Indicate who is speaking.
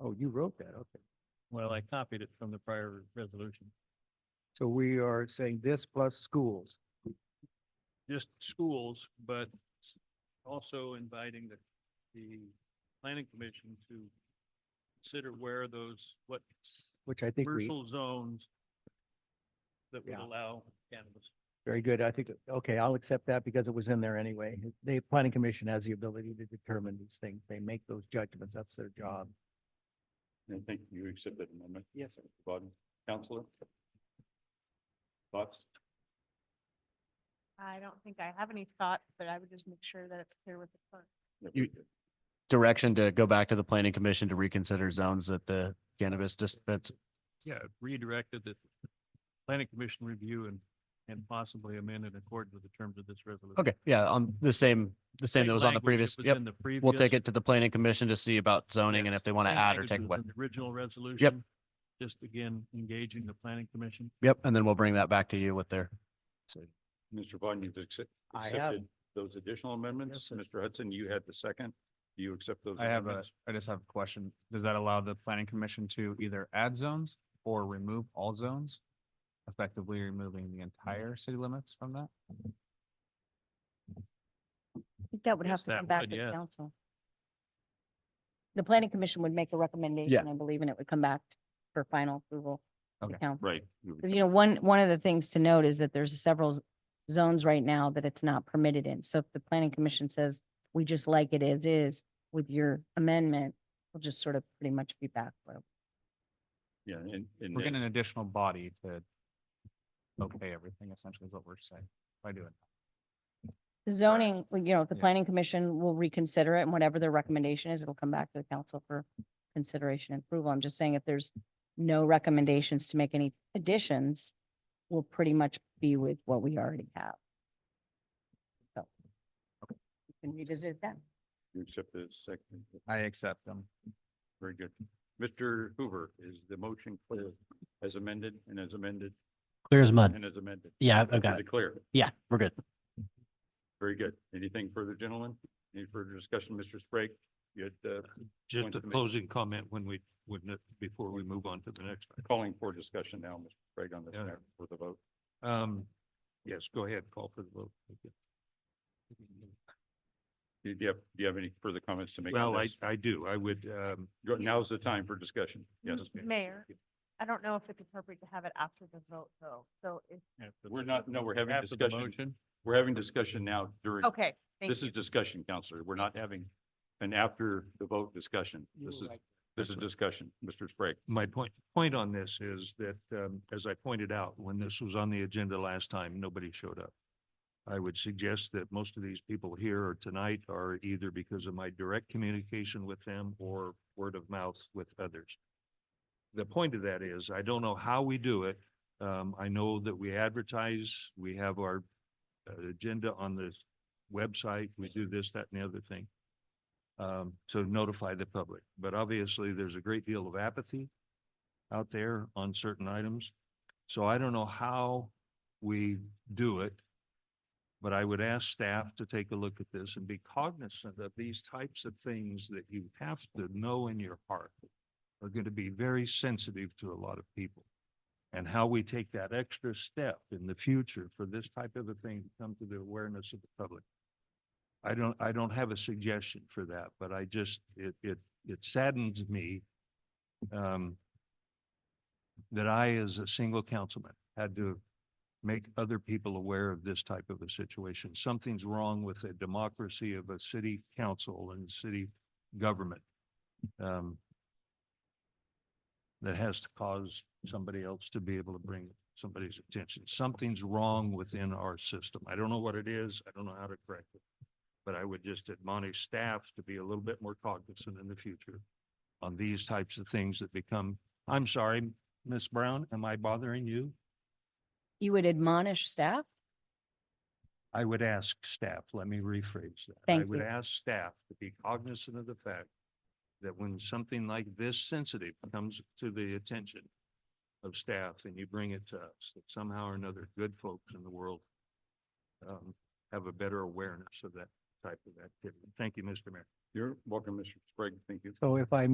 Speaker 1: Oh, you wrote that, okay.
Speaker 2: Well, I copied it from the prior resolution.
Speaker 1: So we are saying this plus schools.
Speaker 2: Just schools, but also inviting the, the planning commission to consider where those, what
Speaker 1: Which I think we,
Speaker 2: commercial zones that would
Speaker 1: Yeah.
Speaker 2: allow cannabis.
Speaker 1: very good. I think, okay, I'll accept that because it was in there anyway. The planning commission has the ability to determine these things. They make those judgments. That's their job.
Speaker 3: I think you accept that amendment,
Speaker 1: Yes, sir.
Speaker 3: Biden, Counselor? Thoughts?
Speaker 4: I don't think I have any thoughts, but I would just make sure that it's clear with the clerk.
Speaker 5: You- direction to go back to the planning commission to reconsider zones that the cannabis dispense.
Speaker 2: Yeah, redirected that planning commission review and, and possibly amend in accordance with the terms of this resolution.
Speaker 5: Okay, yeah, on the same, the same that was on the
Speaker 2: language that
Speaker 5: previous.
Speaker 2: was
Speaker 5: Yep,
Speaker 2: in the
Speaker 5: we'll take
Speaker 2: previous-
Speaker 5: it to the planning commission to see about zoning and
Speaker 2: Yes,
Speaker 5: if they want to
Speaker 2: same
Speaker 5: add or
Speaker 2: language
Speaker 5: take
Speaker 2: was
Speaker 5: away.
Speaker 2: in the Original resolution. Just again, engaging the planning commission.
Speaker 5: Yep, and then we'll bring that back to you with their.
Speaker 3: Mr. Vaughn, you've accept-
Speaker 1: I have.
Speaker 3: accepted those additional amendments.
Speaker 1: sir.
Speaker 3: Mr. Hudson, you had the second. Do you accept those?
Speaker 6: I have a,
Speaker 3: amendments?
Speaker 6: I just have a question. Does that allow the planning commission to either add zones or remove all zones? Effectively removing the entire city limits from that?
Speaker 7: I think that would
Speaker 2: Yes,
Speaker 7: have to
Speaker 2: that
Speaker 7: come back
Speaker 2: would,
Speaker 7: to
Speaker 2: yeah.
Speaker 7: council. The planning commission would make a recommendation, I believe, and it would come back for final approval. to
Speaker 6: Okay.
Speaker 7: council.
Speaker 3: Right. you
Speaker 7: Because, you know, one, one of the things to note is that there's several z- zones right now that it's not permitted in. So if the planning commission says, we just like it as is with your amendment, we'll just sort of pretty much be back. where-
Speaker 3: Yeah, and, and
Speaker 6: We're getting
Speaker 3: then-
Speaker 6: an additional body to okay everything essentially is what we're saying by doing.
Speaker 7: The zoning, well, you know, the
Speaker 6: Yeah.
Speaker 7: planning commission will reconsider it and whatever their recommendation is, it'll come back to the council for consideration and approval. I'm just saying if there's no recommendations to make any additions, we'll pretty much be with what we already have. So. we Can revisit that.
Speaker 3: you accept the second.
Speaker 6: I accept them.
Speaker 3: Very good. Mr. Hoover, is the motion clear as amended and as amended
Speaker 5: Clear as mud.
Speaker 3: and as amended?
Speaker 5: Yeah,
Speaker 3: Is it clear?
Speaker 5: Yeah, we're good.
Speaker 3: Very good. Anything further, gentlemen? Any further discussion? Mr. Sprague, you had, uh,
Speaker 2: Just
Speaker 3: Point
Speaker 2: a
Speaker 3: to the ma-
Speaker 2: closing comment when we, when, it- before we move on to the next. one.
Speaker 3: calling for discussion now, Mr. Sprague, on this
Speaker 2: Yeah.
Speaker 3: matter for the vote.
Speaker 2: Um, yes, go ahead, call for the vote. Thank you.
Speaker 3: Do you have, do you have any further comments to make? on
Speaker 2: Well, I,
Speaker 3: this?
Speaker 2: I do. I would,
Speaker 6: uh,
Speaker 2: um,
Speaker 3: Go- Now's the time for discussion. Yes.
Speaker 2: ma'am.
Speaker 4: Mayor, I don't know if it's appropriate to have it after the vote, though. So if,
Speaker 2: after
Speaker 3: We're
Speaker 2: the-
Speaker 3: not- no, we're having
Speaker 2: after the
Speaker 3: discussion.
Speaker 2: motion,
Speaker 3: We're having discussion now during.
Speaker 4: okay, thank
Speaker 3: This is
Speaker 4: you.
Speaker 3: discussion, Counselor. We're not having an after the vote discussion. This is, this is discussion, Mr. Sprague.
Speaker 2: My point, point on this is that, um, as I pointed out, when this was on the agenda last time, nobody showed up. I would suggest that most of these people here or tonight are either because of my direct communication with them or word of mouth with others. The point of that is, I don't know how we do it. Um, I know that we advertise, we have our uh, agenda on this website, we do this, that, and the other thing. Um, to notify the public, but obviously there's a great deal of apathy out there on certain items. So I don't know how we do it. But I would ask staff to take a look at this and be cognizant of these types of things that you have to know in your heart are going to be very sensitive to a lot of people. And how we take that extra step in the future for this type of a thing to come to the awareness of the public. I don't, I don't have a suggestion for that, but I just, it, it, it saddens me um, that I, as a single councilman, had to make other people aware of this type of a situation. Something's wrong with the democracy of a city council and city government um, that has to cause somebody else to be able to bring somebody's attention. Something's wrong within our system. I don't know what it is. I don't know how to correct it. But I would just admonish staff to be a little bit more cognizant in the future on these types of things that become, I'm sorry, Miss Brown, am I bothering you?
Speaker 7: You would admonish staff?
Speaker 2: I would ask staff, let me rephrase that. I
Speaker 7: Thank
Speaker 2: would
Speaker 7: you.
Speaker 2: ask staff to be cognizant of the fact that when something like this sensitive comes to the attention of staff and you bring it to us, that somehow or another, good folks in the world um, have a better awareness of that type of activity. Thank you, Mr. Mayor.
Speaker 3: You're welcome, Mr. Sprague. Thank you.
Speaker 1: So if I